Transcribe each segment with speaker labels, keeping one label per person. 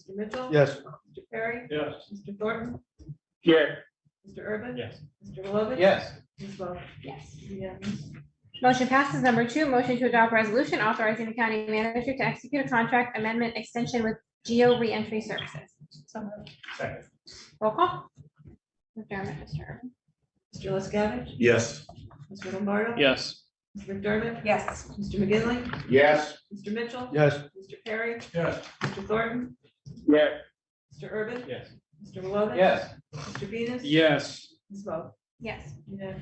Speaker 1: Mr. Mitchell?
Speaker 2: Yes.
Speaker 1: Mr. Perry?
Speaker 3: Yes.
Speaker 1: Mr. Thornton?
Speaker 3: Yes.
Speaker 1: Mr. Urban?
Speaker 3: Yes.
Speaker 1: Mr. Lovett?
Speaker 2: Yes.
Speaker 1: Ms. Wells?
Speaker 4: Yes.
Speaker 1: Yes.
Speaker 4: Motion passes. Number two, motion to adopt resolution authorizing the county manager to execute a contract amendment extension with Geo Reentry Services.
Speaker 1: So moved.
Speaker 3: Second.
Speaker 4: Roll call. McDermott, Mr. Urban.
Speaker 1: Mr. LaScavitch?
Speaker 2: Yes.
Speaker 1: Mr. Lombardo?
Speaker 3: Yes.
Speaker 1: Mr. McDermott?
Speaker 4: Yes.
Speaker 1: Mr. McGinley,
Speaker 2: Yes.
Speaker 1: Mr. Mitchell?
Speaker 2: Yes.
Speaker 1: Mr. Perry?
Speaker 3: Yes.
Speaker 1: Mr. Thornton?
Speaker 3: Yes.
Speaker 1: Mr. Urban?
Speaker 3: Yes.
Speaker 1: Mr. Lovett?
Speaker 2: Yes.
Speaker 1: Mr. Venus?
Speaker 3: Yes.
Speaker 1: Ms. Wells?
Speaker 4: Yes.
Speaker 1: Yes.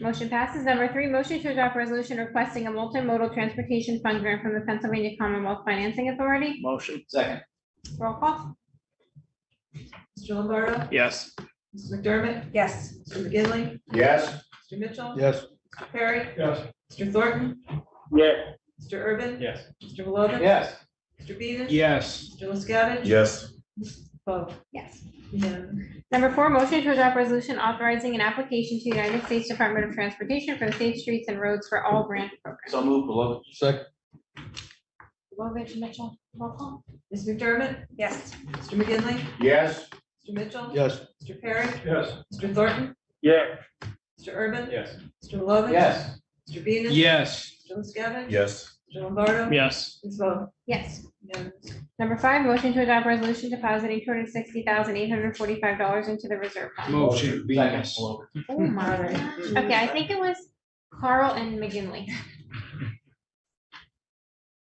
Speaker 4: Motion passes. Number three, motion to adopt resolution requesting a multimodal transportation fund grant from the Pennsylvania Commonwealth Financing Authority.
Speaker 3: Motion.
Speaker 2: Second.
Speaker 4: Roll call.
Speaker 1: Mr. Lombardo?
Speaker 3: Yes.
Speaker 1: Mr. McDermott?
Speaker 4: Yes.
Speaker 1: Mr. McGinley,
Speaker 2: Yes.
Speaker 1: Mr. Mitchell?
Speaker 2: Yes.
Speaker 1: Mr. Perry?
Speaker 3: Yes.
Speaker 1: Mr. Thornton?
Speaker 3: Yes.
Speaker 1: Mr. Urban?
Speaker 3: Yes.
Speaker 1: Mr. Lovett?
Speaker 2: Yes.
Speaker 1: Mr. Venus?
Speaker 3: Yes.
Speaker 1: Mr. LaScavitch?
Speaker 2: Yes.
Speaker 1: Ms. Wells?
Speaker 4: Yes.
Speaker 1: Yes.
Speaker 4: Number four, motion to adopt resolution authorizing an application to the United States Department of Transportation for the Safe Streets and Roads for All Grant Program.
Speaker 2: So move, beloved. Second.
Speaker 4: Lovett, Mitchell, roll call.
Speaker 1: Ms. McDermott?
Speaker 4: Yes.
Speaker 1: Mr. McGinley,
Speaker 2: Yes.
Speaker 1: Mr. Mitchell?
Speaker 2: Yes.
Speaker 1: Mr. Perry?
Speaker 3: Yes.
Speaker 1: Mr. Thornton?
Speaker 3: Yes.
Speaker 1: Mr. Urban?
Speaker 3: Yes.
Speaker 1: Mr. Lovett?
Speaker 2: Yes.
Speaker 1: Mr. Venus?
Speaker 3: Yes.
Speaker 1: Mr. LaScavitch?
Speaker 2: Yes.
Speaker 1: Mr. Lombardo?
Speaker 3: Yes.
Speaker 1: Ms. Wells?
Speaker 4: Yes.
Speaker 1: Yes.
Speaker 4: Number five, motion to adopt resolution depositing two hundred sixty thousand eight hundred forty-five dollars into the reserve fund.
Speaker 3: Motion. Venus.
Speaker 2: Beloved.
Speaker 4: Oh my. Okay, I think it was Carl and McGinley.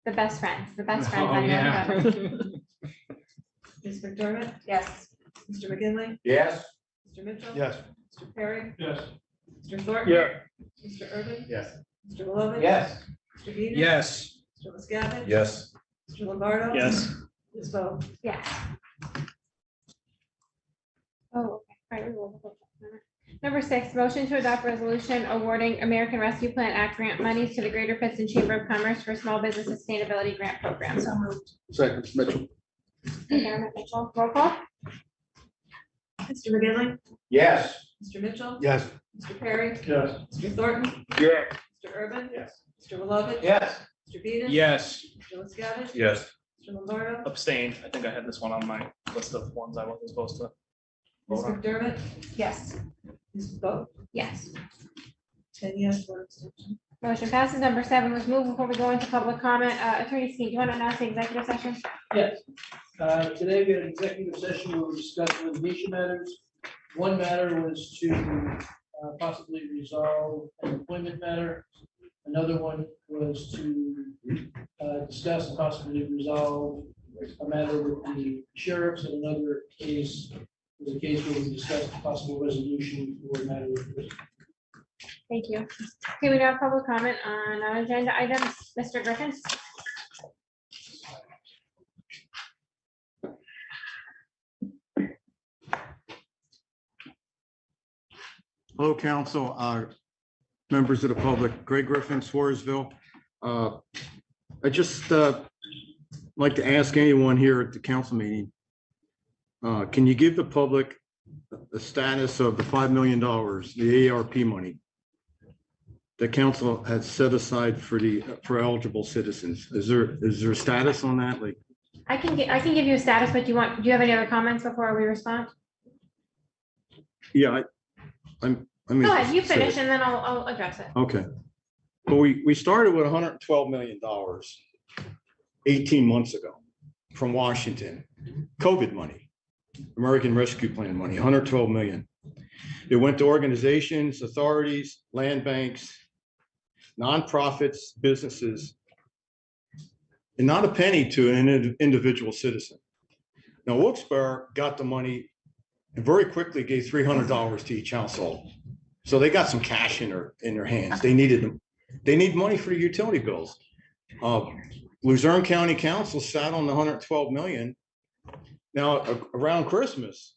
Speaker 4: The best friends, the best friends.
Speaker 3: Oh,
Speaker 4: I know
Speaker 3: yeah.
Speaker 4: about it.
Speaker 1: Ms. McDermott?
Speaker 4: Yes.
Speaker 1: Mr. McGinley,
Speaker 2: Yes.
Speaker 1: Mr. Mitchell?
Speaker 2: Yes.
Speaker 1: Mr. Perry?
Speaker 3: Yes.
Speaker 1: Mr. Thornton?
Speaker 3: Yeah.
Speaker 1: Mr. Urban?
Speaker 3: Yes.
Speaker 1: Mr. Lovett?
Speaker 2: Yes.
Speaker 1: Mr. Venus?
Speaker 3: Yes.
Speaker 1: Mr. LaScavitch?
Speaker 2: Yes.
Speaker 1: Mr. Lombardo?
Speaker 3: Yes.
Speaker 1: Ms. Wells?
Speaker 4: Yes. Oh, okay. All right, we will look at that. Number six, motion to adopt resolution awarding American Rescue Plan Act grant monies to the Greater Pittston Chamber of Commerce for Small Business Sustainability Grant Program. So moved.
Speaker 2: Second, Mitchell.
Speaker 4: Chairman Mitchell, roll call.
Speaker 1: Mr. McGinley,
Speaker 2: Yes.
Speaker 1: Mr. Mitchell?
Speaker 2: Yes.
Speaker 1: Mr. Perry?
Speaker 3: Yes.
Speaker 1: Mr. Thornton?
Speaker 3: Yeah.
Speaker 1: Mr. Urban?
Speaker 3: Yes.
Speaker 1: Mr. Lovett?
Speaker 2: Yes.
Speaker 1: Mr. Venus?
Speaker 3: Yes.
Speaker 1: Mr. LaScavitch?
Speaker 2: Yes.
Speaker 1: Mr. Lombardo?
Speaker 3: Abstained. I think I had this one on my list of ones I wasn't supposed to.
Speaker 1: Ms.
Speaker 3: Hold on.
Speaker 1: McDermott?
Speaker 4: Yes.
Speaker 1: Ms. Wells?
Speaker 4: Yes.
Speaker 1: Ten yes, one abstention.
Speaker 4: Motion passes. Number seven was moved before we go into public comment. Uh, Attorney Skeen, do you want to announce the executive session?
Speaker 5: Yes. Uh, Today we had an executive session where we discussed litigation matters. One matter was to uh, possibly resolve an employment matter. Another one was to uh, discuss and possibly resolve a matter with the sheriffs. And another case was a case where we discussed possible resolution for a matter with
Speaker 4: Thank you. Okay, we now have public comment on non-agenda items. Mr. Griffin?
Speaker 6: Hello, council, uh, members of the public, Greg Griffin, Swarsville. Uh, I just uh, like to ask anyone here at the council meeting, uh, can you give the public the status of the $5 million, the ARP money the council has set aside for the, for eligible citizens? Is there, is there a status on that? Like,
Speaker 4: I can, gi- I can give you a status, but do you want, do you have any other comments before we respond?
Speaker 6: yeah, I, I'm, I mean.
Speaker 4: Go ahead, you finish and then I'll, I'll address it.
Speaker 6: Okay. Well, we, we started with hundred and twelve million dollars eighteen months ago from Washington, COVID money, American Rescue Plan money, 112 million. It went to organizations, authorities, land banks, nonprofits, businesses, and not a penny to an indi- individual citizen. Now, Wilkes-Barre got the money and very quickly gave $300 to each household. So they got some cash in their, in their hands. They needed them. They need money for utility bills. Uh, Luzerne County Council sat on the hundred twelve million. Now, a- around Christmas.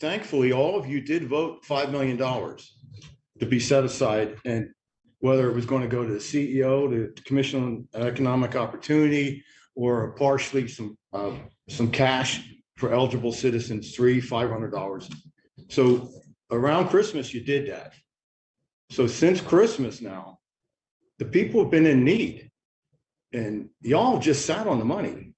Speaker 6: Thankfully, all of you did vote five million dollars to be set aside and whether it was going to go to the CEO, the Commission on Economic Opportunity, or partially some, uh, some cash for eligible citizens, three, five hundred dollars. So around Christmas, you did that. So since Christmas now, the people have been in need. And y'all just sat on the money.